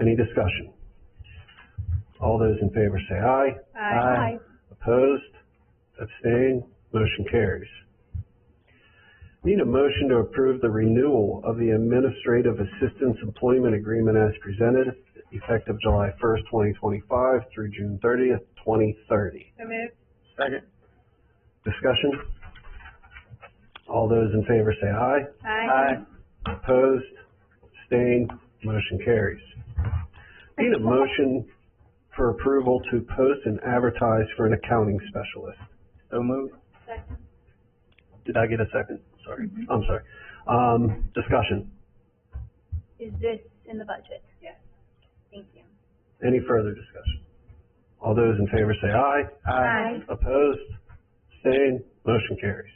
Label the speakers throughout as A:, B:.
A: Any discussion? All those in favor say aye. Opposed? Abstained? Motion carries. Need a motion to approve the renewal of the Administrative Assistance Employment Agreement as presented, effective July first, twenty twenty-five through June thirtieth, twenty thirty.
B: So moved.
C: Second.
A: Discussion? All those in favor say aye. Opposed? Abstained? Motion carries. Need a motion for approval to post and advertise for an accounting specialist.
C: So moved.
B: Second.
A: Did I get a second? Sorry, I'm sorry. Um, discussion,
D: Is this in the budget?
B: Yes.
D: Thank you.
A: any further discussion? All those in favor say aye. Opposed? Abstained? Motion carries.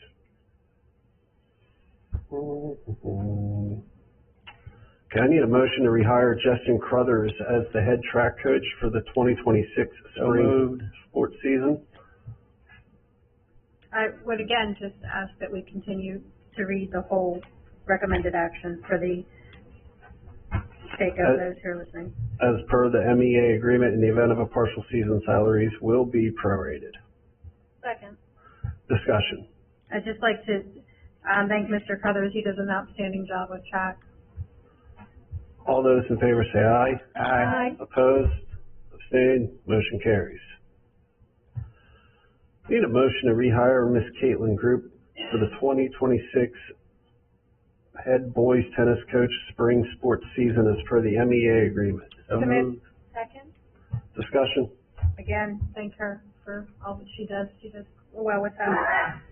A: Okay, I need a motion to rehire Justin Crothers as the head track coach for the twenty twenty-six
C: So
A: spring
C: moved.
A: sports season.
B: I would again just ask that we continue to read the whole recommended action for the sake
A: Uh,
B: of those who are listening.
A: As per the MEA agreement, in the event of a partial season, salaries will be prorated.
D: Second.
A: Discussion.
B: I'd just like to, um, thank Mr. Crothers. He does an outstanding job with track.
A: All those in favor say aye.
C: Aye.
A: Opposed? Abstained? Motion carries. Need a motion to rehire Miss Caitlin Group for the twenty twenty-six head boys tennis coach spring sports season as per the MEA agreement.
C: So
B: Second.
C: moved.
D: Second.
A: Discussion?
B: Again, thank her for all that she does. She does well with that.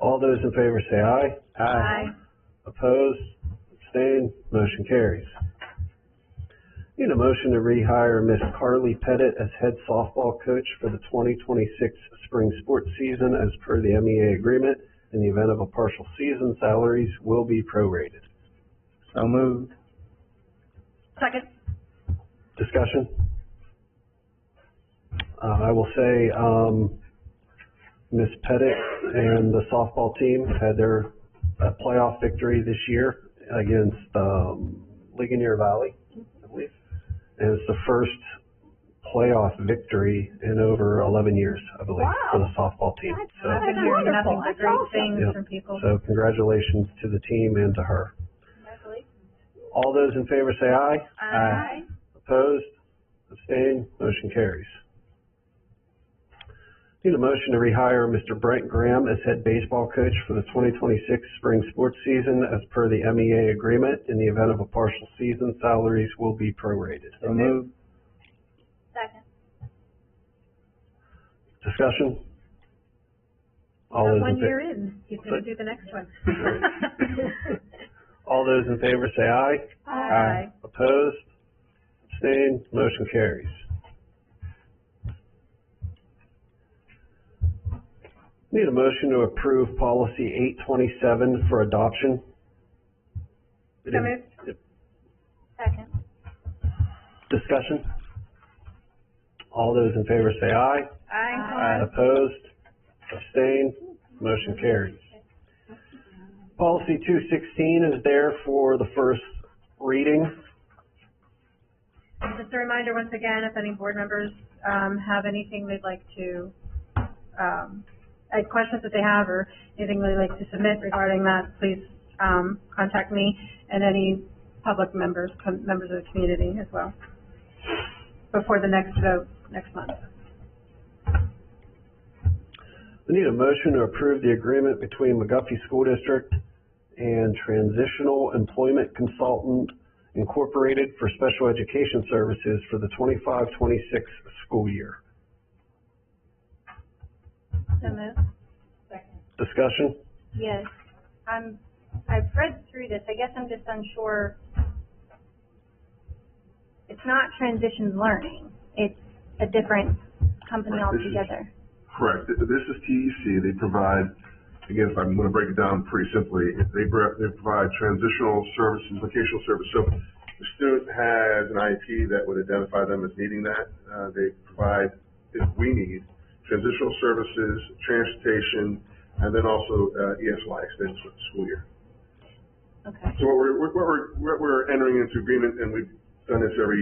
A: All those in favor say aye.
C: Aye.
A: Opposed? Abstained? Motion carries. Need a motion to rehire Miss Carly Pettit as head softball coach for the twenty twenty-six spring sports season as per the MEA agreement. In the event of a partial season, salaries will be prorated.
C: So moved.
B: Second.
A: Discussion? Uh, I will say, um, Ms. Pettit and the softball team had their uh, playoff victory this year against, um, Ligonier Valley, I believe. And it's the first playoff victory in over eleven years, I believe, for the softball team. So,
B: I've been hearing nothing but great
A: Uh, Yeah.
B: things from people.
A: so congratulations to the team and to her. All those in favor say aye.
C: Aye.
A: Opposed? Abstained? Motion carries. Need a motion to rehire Mr. Brent Graham as head baseball coach for the twenty twenty-six spring sports season as per the MEA agreement. In the event of a partial season, salaries will be prorated.
C: So moved.
D: Second.
A: Discussion? All
B: We're
A: those in
B: One
A: fa-
B: year in, he's gonna do the next one.
A: all those in favor say aye.
C: Aye.
A: Opposed? Abstained? Motion carries. Need a motion to approve policy eight twenty-seven for adoption?
B: So moved.
D: Second.
A: Discussion? All those in favor say aye.
B: Aye.
A: Opposed? Abstained? Motion carries. Policy two sixteen is there for the first reading.
B: Um, Just a reminder once again, if any board members, um, have anything they'd like to, um, uh, questions that they have or anything they'd like to submit regarding that, please, um, contact me and any public members, com- members of the community as well. Before the next vote, next month.
A: We need a motion to approve the agreement between McGuffey School District and Transitional Employment Consultant Incorporated for Special Education Services for the 25-26 school year.
B: So moved.
A: Discussion?
D: Yes. I'm, Um, I've read through this. I guess I'm just unsure. It's not transition learning. It's a different company
E: Right, this is-
D: altogether.
E: Correct. Th- This is TEC. They provide, again, if I'm going to break it down pretty simply, they, br- they provide transitional services, vocational service. So the student has an IEP that would identify them as needing that. Uh, they provide, if we need, transitional services, transportation, and then also, uh, ESY extensions for the school year.
D: Okay.
E: So what we're, what we're, what we're entering into agreement, and we've done this every